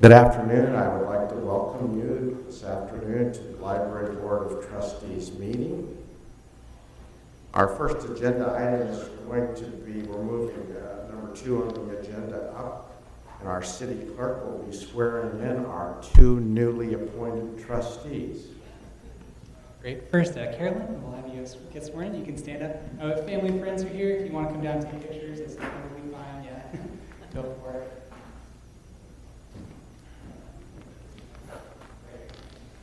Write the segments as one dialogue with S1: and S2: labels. S1: Good afternoon. I would like to welcome you this afternoon to the Library Board of Trustees meeting. Our first agenda item is going to be, we're moving uh, number two on the agenda up, and our city clerk will be swearing in our two newly appointed trustees.
S2: Great. First, uh, Carolyn, we'll have you get sworn in. You can stand up. Uh, if family and friends are here, if you want to come down and take pictures, it's totally fine. Yeah, go for it. Great.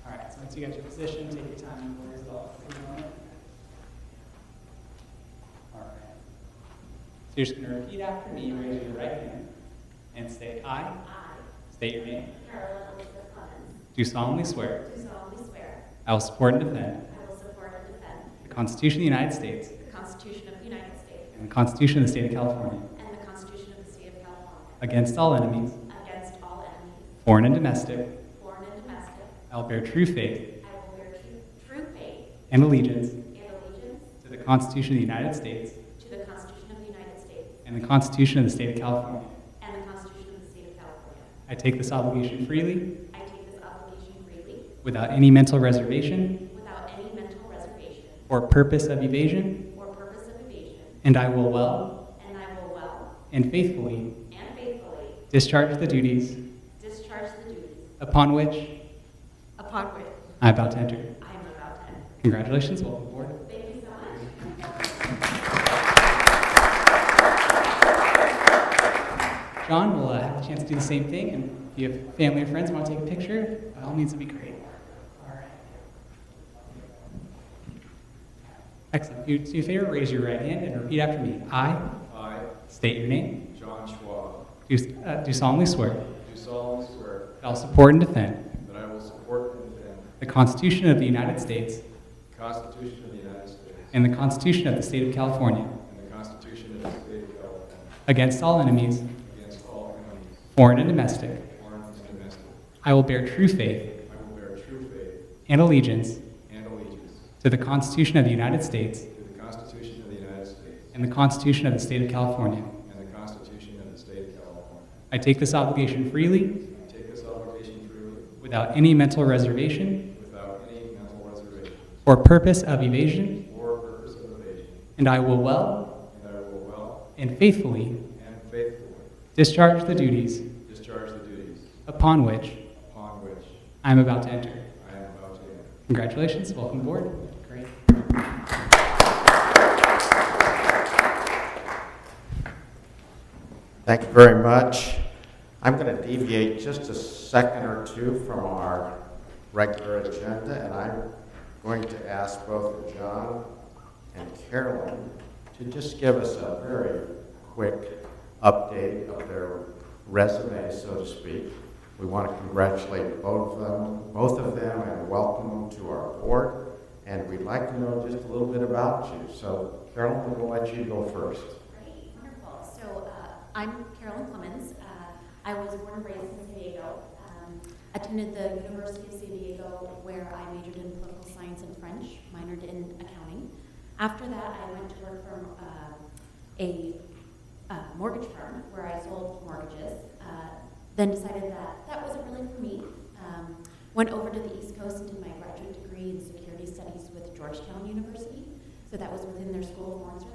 S2: All right, so once you got your position, take your time and we'll resolve for a moment. All right. So you're just going to repeat after me. Raise your right hand and say aye.
S3: I,
S2: State your name.
S3: Carolyn Elizabeth Clemens,
S2: Do solemnly swear
S3: do solemnly swear
S2: I will support and defend
S3: I will support and defend
S2: the Constitution of the United States
S3: the Constitution of the United States
S2: and the Constitution of the State of California
S3: and the Constitution of the State of California
S2: Against all enemies,
S3: against all enemies,
S2: foreign and domestic,
S3: foreign and domestic.
S2: I will bear true faith
S3: I will bear true- true faith
S2: and allegiance
S3: and allegiance
S2: to the Constitution of the United States
S3: to the Constitution of the United States
S2: and the Constitution of the State of California.
S3: and the Constitution of the State of California.
S2: I take this obligation freely,
S3: I take this obligation freely
S2: without any mental reservation
S3: without any mental reservation
S2: or purpose of evasion,
S3: or purpose of evasion,
S2: and I will well
S3: and I will well
S2: and faithfully
S3: and faithfully
S2: discharge the duties
S3: discharge the duties
S2: upon which
S3: upon which
S2: I am about to enter.
S3: I am about to enter.
S2: Congratulations, welcome aboard.
S3: Thank you so much.
S2: John will uh, have the chance to do the same thing, and if you have family or friends who want to take a picture, by all means, it'd be great. All right. Excellent. You do you a favor, raise your right hand and repeat after me. I
S4: I,
S2: state your name.
S4: John Schwab,
S2: Do, uh, do solemnly swear
S4: do solemnly swear
S2: that I'll support and defend
S4: that I will support and defend
S2: the Constitution of the United States
S4: the Constitution of the United States
S2: and the Constitution of the State of California
S4: and the Constitution of the State of California
S2: against all enemies,
S4: against all enemies,
S2: foreign and domestic.
S4: foreign and domestic.
S2: I will bear true faith
S4: I will bear true faith
S2: and allegiance
S4: and allegiance
S2: to the Constitution of the United States
S4: to the Constitution of the United States
S2: and the Constitution of the State of California.
S4: and the Constitution of the State of California.
S2: I take this obligation freely,
S4: I take this obligation freely
S2: without any mental reservation
S4: without any mental reservation
S2: or purpose of evasion,
S4: or purpose of evasion,
S2: and I will well
S4: and that I will well
S2: and faithfully
S4: and faithfully
S2: discharge the duties
S4: discharge the duties
S2: upon which
S4: upon which
S2: I am about to enter.
S4: I am about to enter.
S2: Congratulations, welcome aboard. Great.
S1: Thank you very much. I'm going to deviate just a second or two from our regular agenda, and I'm going to ask both John and Carolyn to just give us a very quick update of their resume, so to speak. We want to congratulate both of them, both of them, and welcome them to our board. And we'd like to know just a little bit about you. So, Carolyn, we'll let you go first.
S3: Great, wonderful. So uh, I'm Carolyn Clemens. Uh, I was born and raised in San Diego. Um, Attended the University of San Diego where I majored in political science and French, minored in accounting. After that, I went to work for uh, a uh, mortgage firm where I sold mortgages. Uh, Then decided that that wasn't really for me. Um, Went over to the East Coast and did my graduate degree in security studies with Georgetown University. So that was within their School of Mortgage